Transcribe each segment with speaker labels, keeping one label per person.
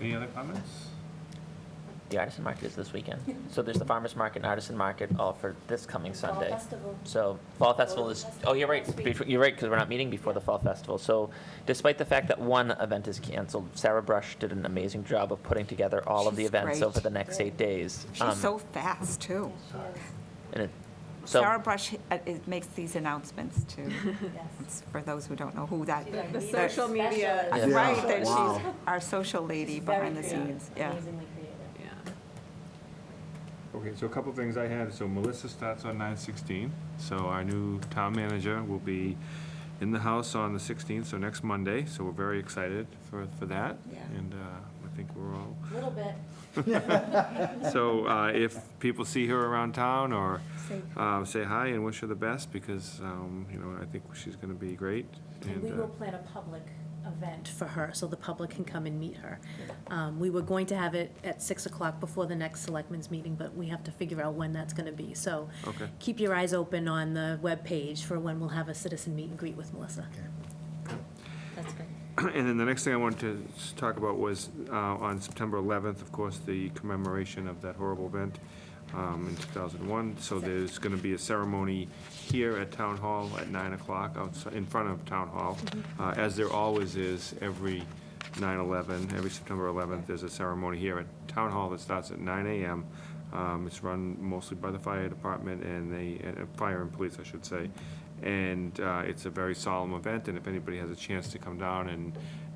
Speaker 1: Any other comments?
Speaker 2: The artisan market is this weekend. So there's the farmer's market and artisan market all for this coming
Speaker 3: Fall
Speaker 2: Sunday.
Speaker 3: Festival.
Speaker 2: So fall festival is,
Speaker 3: Festival
Speaker 2: oh, you're right,
Speaker 3: next week.
Speaker 2: Bef- you're right, because we're not meeting before the fall festival. So despite the fact that one event is canceled, Sarah Brush did an amazing job of putting together all of the
Speaker 4: She's
Speaker 2: events
Speaker 4: great.
Speaker 2: over the next eight days. Um,
Speaker 4: She's so fast,
Speaker 5: Oh,
Speaker 4: too.
Speaker 2: and it- so-
Speaker 4: Sarah Brush uh, it makes these announcements, too. It's For those who don't know who that,
Speaker 3: The
Speaker 4: that's
Speaker 6: social media.
Speaker 2: Yeah.
Speaker 4: right, that
Speaker 3: Wow.
Speaker 4: she's our social lady behind the scenes, yeah.
Speaker 3: Amazingly creative.
Speaker 6: Yeah.
Speaker 1: Okay, so a couple things I have, so Melissa starts on nine sixteen, so our new town manager will be in the house on the sixteenth, so next Monday, so we're very excited for, for that.
Speaker 4: Yeah.
Speaker 1: And, uh, I think we're all
Speaker 3: Little bit.
Speaker 1: So uh, if people see her around town or um, say hi and wish her the best because, um, you know, I think she's going to be great.
Speaker 5: And we
Speaker 1: uh,
Speaker 5: will plan a public event for her, so the public can come and meet her. Um, We were going to have it at 6 o'clock before the next selectmen's meeting, but we have to figure out when that's going to be. So
Speaker 1: Okay.
Speaker 5: keep your eyes open on the webpage for when we'll have a citizen meet and greet with Melissa.
Speaker 3: That's great.
Speaker 1: And then the next thing I wanted to s- talk about was uh, on September 11th, of course, the commemoration of that horrible event um, in 2001. So there's going to be a ceremony here at Town Hall at 9 o'clock, outside, in front of Town Hall, uh, as there always is every 9/11, every September 11th, there's a ceremony here at Town Hall that starts at 9 AM. Um, It's run mostly by the fire department and the, uh, fire and police, I should say. And uh, it's a very solemn event, and if anybody has a chance to come down and,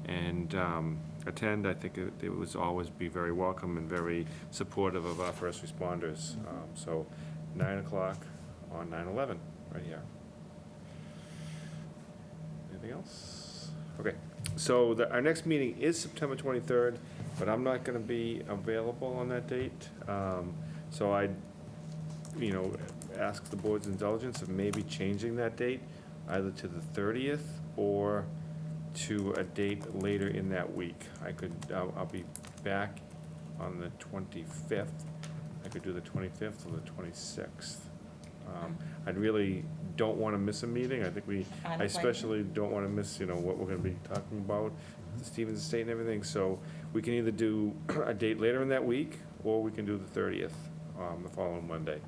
Speaker 1: and um, attend, I think it it was always be very welcome and very supportive of our first responders. Um, So 9 o'clock on 9/11, right here. Anything else? Okay, so the, our next meeting is September twenty-third, but I'm not gonna be available on that date. Um, so I, you know, ask the board's indulgence of maybe changing that date either to the thirtieth or to a date later in that week. I could, I'll, I'll be back on the twenty-fifth. I could do the twenty-fifth or the twenty-sixth. Um, I really don't wanna miss a meeting. I think we,
Speaker 3: I'm
Speaker 1: I
Speaker 3: like-
Speaker 1: especially don't wanna miss, you know, what we're gonna be talking about, the Stevens Estate and everything, so we can either do a date later in that week, or we can do the thirtieth, um, the following Monday.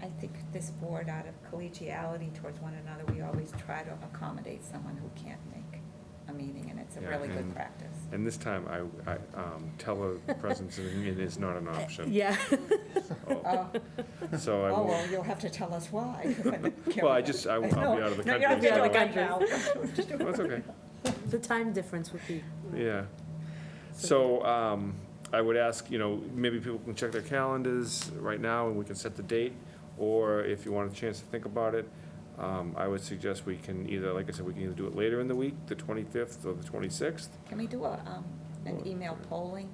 Speaker 7: I think this board, out of collegiality towards one another, we always try to accommodate someone who can't make a meeting, and it's a
Speaker 1: Yeah,
Speaker 7: really
Speaker 1: and-
Speaker 7: good practice.
Speaker 1: And this time, I, I, um, telepresence is not an option.
Speaker 5: Yeah.
Speaker 7: Oh,
Speaker 1: So I
Speaker 7: oh,
Speaker 1: will,
Speaker 7: well, you'll have to tell us why.
Speaker 1: well, I just, I, will be out of the
Speaker 7: No,
Speaker 1: country.
Speaker 7: you're not
Speaker 5: out
Speaker 7: feeling
Speaker 5: of
Speaker 1: so-
Speaker 5: the
Speaker 7: right now.
Speaker 1: That's okay.
Speaker 5: The time difference would be,
Speaker 1: Yeah. So um, I would ask, you know, maybe people can check their calendars right now and we can set the date, or if you want a chance to think about it, um, I would suggest we can either, like I said, we can either do it later in the week, the 25th or the 26th.
Speaker 7: Can we do a, um, an email polling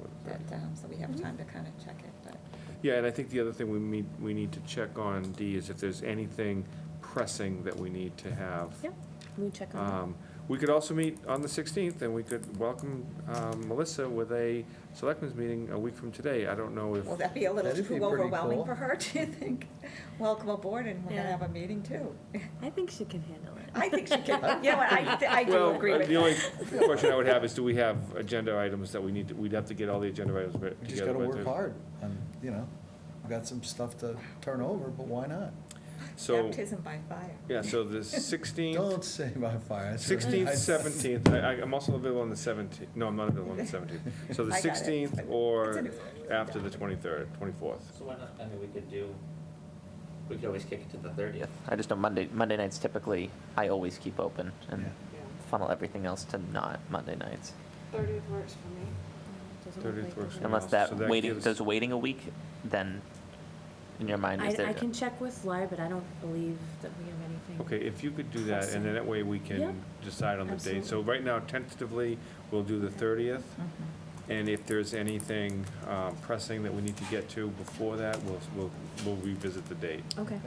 Speaker 1: or the
Speaker 7: that,
Speaker 1: 30th.
Speaker 7: um, so we
Speaker 5: Mm-hmm.
Speaker 7: have time to kind of check it, but.
Speaker 1: Yeah, and I think the other thing we need, we need to check on, D, is if there's anything pressing that we need to have.
Speaker 5: yeah, we check on that.
Speaker 1: Um, We could also meet on the 16th, and we could welcome um, Melissa with a selectmen's meeting a week from today. I don't know if.
Speaker 7: Will that be a little
Speaker 8: That'd be
Speaker 7: too
Speaker 8: pretty
Speaker 7: overwhelming
Speaker 8: cool.
Speaker 7: for her, do you think? Welcome aboard, and we're gonna
Speaker 5: Yeah.
Speaker 7: have a meeting too.
Speaker 5: I think she can handle it.
Speaker 7: I think she can, you know, what, I, I do
Speaker 1: Well,
Speaker 7: agree
Speaker 1: uh,
Speaker 7: with
Speaker 1: the
Speaker 7: that.
Speaker 1: only question I would have is, do we have agenda items that we need, to- we'd have to get all the agenda items together.
Speaker 8: We just gotta
Speaker 1: by
Speaker 8: work
Speaker 1: Thursday.
Speaker 8: hard, and, you know, we've got some stuff to turn over, but why not?
Speaker 1: So,
Speaker 7: Baptism by fire.
Speaker 1: yeah, so the sixteenth,
Speaker 8: Don't say by fire. I said-
Speaker 1: sixteenth,
Speaker 8: I-
Speaker 1: seventeenth, I, I- I'm also available on the seventeenth, no, I'm not available on the seventeenth. So the
Speaker 7: I got it.
Speaker 1: sixteenth
Speaker 7: It's a
Speaker 1: or
Speaker 7: new one.
Speaker 1: after the twenty-third, twenty-fourth.
Speaker 2: So why not, I mean, we could do, we could always kick it to the thirtieth. I just know Monday, Monday nights typically, I always keep open and
Speaker 8: Yeah.
Speaker 2: funnel everything else to not Monday nights.
Speaker 6: Thirtieth works for me.
Speaker 5: Doesn't look
Speaker 1: 30th
Speaker 5: like
Speaker 1: works
Speaker 5: it.
Speaker 1: for
Speaker 2: Unless
Speaker 1: else?
Speaker 2: that
Speaker 1: So that
Speaker 2: waiting,
Speaker 1: gives-
Speaker 2: does waiting a week, then in your mind is
Speaker 5: I,
Speaker 2: there?
Speaker 5: I can check with Laurie, but I don't believe that we have anything.
Speaker 1: Okay, if you could do that, and then that way we
Speaker 5: Yeah.
Speaker 1: can decide on the date. So right now tentatively, we'll do the thirtieth.
Speaker 7: Mm-hmm,
Speaker 1: And if there's anything um, pressing that we need to get to before that, we'll, we'll we'll revisit the date.
Speaker 5: Okay.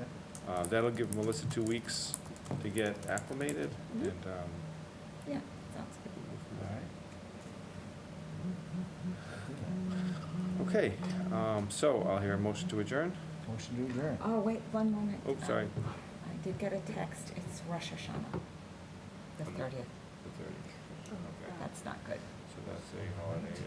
Speaker 1: Uh, That'll give Melissa two weeks to get acclimated
Speaker 5: Mhm.
Speaker 1: and, um,
Speaker 7: Yeah, sounds good.
Speaker 8: All right.
Speaker 5: Mm-hmm.
Speaker 1: okay, um, so I'll hear a motion to adjourn.
Speaker 8: Motion to adjourn.
Speaker 7: Oh, wait, one moment.
Speaker 1: Oh, sorry.
Speaker 7: Um, I did get a text, it's Rosh Hashanah, the thirtieth,
Speaker 1: The 30th. Okay,
Speaker 7: that's not good.
Speaker 1: So that's a holiday.